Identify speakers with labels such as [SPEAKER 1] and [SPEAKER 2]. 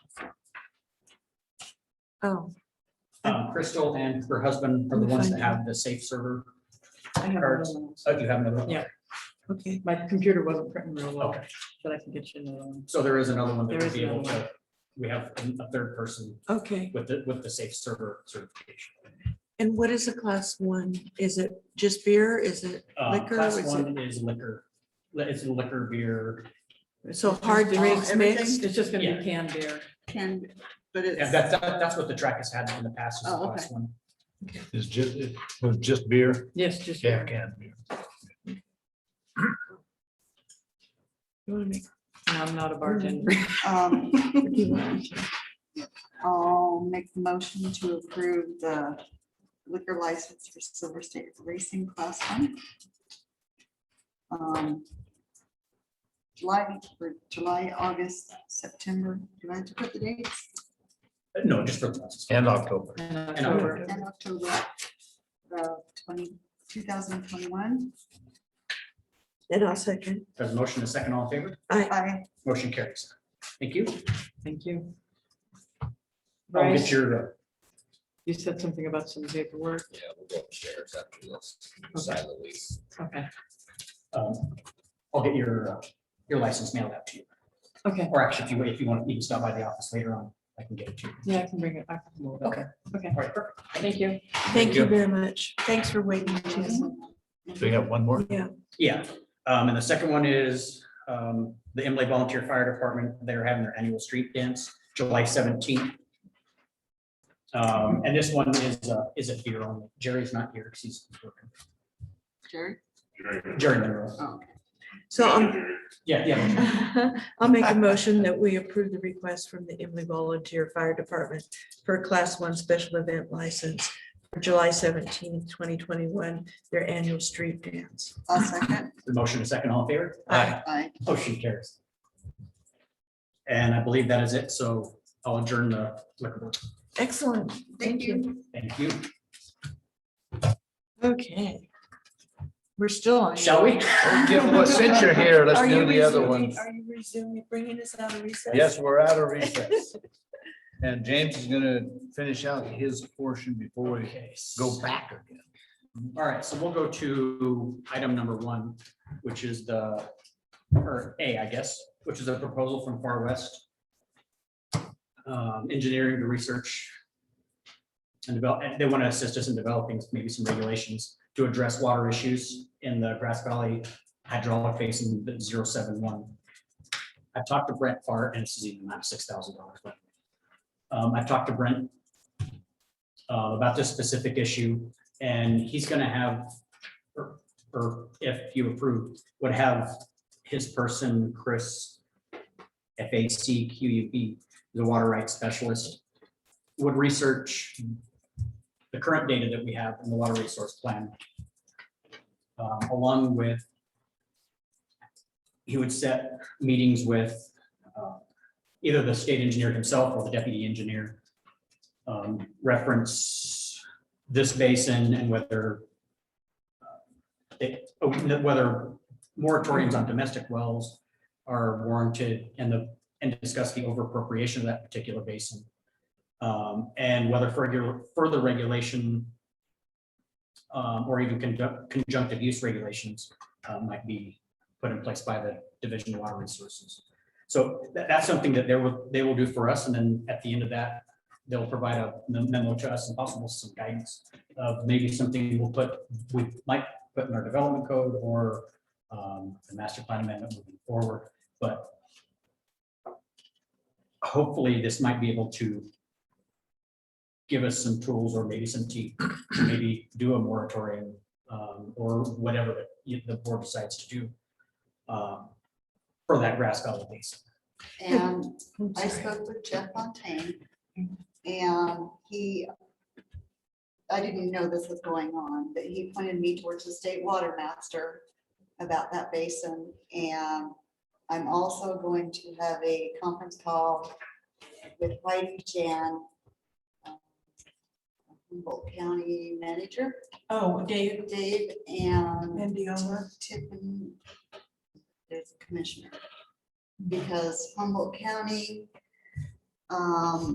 [SPEAKER 1] Oh,
[SPEAKER 2] Uh, Crystal and her husband are the ones that have the safe server
[SPEAKER 3] I have another
[SPEAKER 2] cards.
[SPEAKER 3] one.
[SPEAKER 2] Oh, do you have another one?
[SPEAKER 3] Yeah.
[SPEAKER 1] okay.
[SPEAKER 3] My computer wasn't printing real well,
[SPEAKER 2] Okay.
[SPEAKER 3] but I can get you another one.
[SPEAKER 2] So there is another one that
[SPEAKER 3] There
[SPEAKER 2] would
[SPEAKER 3] is
[SPEAKER 2] be able
[SPEAKER 3] another
[SPEAKER 2] to, we have a third person
[SPEAKER 1] Okay.
[SPEAKER 2] with the, with the safe server certification.
[SPEAKER 1] And what is a class one? Is it just beer? Is it,
[SPEAKER 2] Uh,
[SPEAKER 1] Liquor,
[SPEAKER 2] Class
[SPEAKER 1] is
[SPEAKER 2] one is liquor, Li- it's liquor, beer,
[SPEAKER 1] so hard
[SPEAKER 3] Just
[SPEAKER 1] drinks
[SPEAKER 3] everything?
[SPEAKER 1] mixed?
[SPEAKER 3] It's just gonna
[SPEAKER 2] Yeah.
[SPEAKER 3] be canned beer.
[SPEAKER 4] Can, but it's.
[SPEAKER 2] and that's, that's what the track has had in the past, is the
[SPEAKER 4] Oh,
[SPEAKER 2] class one.
[SPEAKER 5] It's just, it was just beer.
[SPEAKER 3] Yes, just. beer.
[SPEAKER 5] Can beer.
[SPEAKER 1] You wanna make-
[SPEAKER 3] And I'm not a bartender.
[SPEAKER 2] Mm.
[SPEAKER 4] Um, I'll make the motion to approve the liquor license for Silver State Racing Class One. Um, July, for July, August, September, do I have to put the dates?
[SPEAKER 2] Uh, No, just for. the classes.
[SPEAKER 5] And October.
[SPEAKER 3] And
[SPEAKER 2] October.
[SPEAKER 3] October.
[SPEAKER 4] And October, the twenty, two thousand twenty-one.
[SPEAKER 1] And I'll second.
[SPEAKER 2] There's a motion, a second, all in favor?
[SPEAKER 4] I,
[SPEAKER 2] Motion carries. Thank you.
[SPEAKER 3] Thank you.
[SPEAKER 2] I'll get
[SPEAKER 3] Bryce,
[SPEAKER 2] your, uh,
[SPEAKER 3] you said something about some paperwork.
[SPEAKER 6] Yeah, we'll go upstairs after this, sign the lease.
[SPEAKER 3] Okay,
[SPEAKER 2] um, I'll get your, uh, your license mailed out to you.
[SPEAKER 3] okay.
[SPEAKER 2] Or actually, if you, if you want, you can stop by the office later on. I can get it to you.
[SPEAKER 3] Yeah, I can bring it. I can move it.
[SPEAKER 2] Okay.
[SPEAKER 3] Okay,
[SPEAKER 2] All right, perfect.
[SPEAKER 3] thank you.
[SPEAKER 1] Thank you very much. Thanks for waiting. Jason.
[SPEAKER 5] So you have one more?
[SPEAKER 1] Yeah,
[SPEAKER 2] Yeah, um, and the second one is, um, the Emily Volunteer Fire Department, they're having their annual street dance, July seventeenth. Um, and this one is, uh, is a beer only. Jerry's not here, 'cause he's working.
[SPEAKER 4] Jerry?
[SPEAKER 2] Jerry Monroe.
[SPEAKER 4] Oh,
[SPEAKER 1] so um,
[SPEAKER 2] Yeah, yeah.
[SPEAKER 1] I'll make a motion that we approve the request from the Emily Volunteer Fire Department for a class one special event license for July seventeenth, twenty twenty-one, their annual street dance.
[SPEAKER 4] I'll second.
[SPEAKER 2] The motion is second, all in favor?
[SPEAKER 1] Aye.
[SPEAKER 4] I.
[SPEAKER 2] Motion carries. And I believe that is it, so I'll adjourn the liquor board.
[SPEAKER 1] Excellent.
[SPEAKER 4] Thank you.
[SPEAKER 2] Thank you.
[SPEAKER 1] Okay. We're still on.
[SPEAKER 2] Shall we?
[SPEAKER 5] Well, since you're here, let's
[SPEAKER 1] Are
[SPEAKER 5] do
[SPEAKER 1] you
[SPEAKER 5] the other
[SPEAKER 1] resuming-
[SPEAKER 5] one.
[SPEAKER 1] Are you resuming, bringing us out of recess?
[SPEAKER 5] Yes, we're out of recess. And James is gonna finish out his portion before we
[SPEAKER 2] Okay,
[SPEAKER 5] go back again.
[SPEAKER 2] All right, so we'll go to item number one, which is the, or A, I guess, which is a proposal from Far West. um, Engineering to research. And develop, and they want to assist us in developing maybe some regulations to address water issues in the Grass Valley hydraulic basin 071. I've talked to Brent Farr, and this is even not six thousand dollars, but. um, I've talked to Brent. uh, about this specific issue. And he's gonna have, or, or if you approve, would have his person, Chris. F A C Q U B, the water rights specialist, would research. The current data that we have in the water resource plan. um, along with. He would set meetings with, uh, either the state engineer himself or the deputy engineer. um, reference this basin and whether uh, it- oh, n- whether moratoriums on domestic wells are warranted and the, and discuss the overappropriation of that particular basin. Um, And whether further, further regulation um, or even conduct- conjunctive use regulations uh, might be put in place by the Division of Water Resources. So that, that's something that they will, they will do for us. And then at the end of that, they'll provide a memo to us and possible some guidance of maybe something we'll put, we might put in our development code or um, the master plan amendment moving forward, but hopefully this might be able to give us some tools or maybe some teeth, to maybe do a moratorium um, or whatever the- the board decides to do um, for that grass valley basin.
[SPEAKER 4] And I spoke with Jeff Fontaine and he, I didn't know this was going on, but he pointed me towards the state water master about that basin. And I'm also going to have a conference call with Whitey Jan, um, Humboldt County Manager
[SPEAKER 1] Oh, Dave,
[SPEAKER 4] Dave and
[SPEAKER 1] and Diola.
[SPEAKER 4] Tiffin, there's a commissioner. Because Humboldt County, um,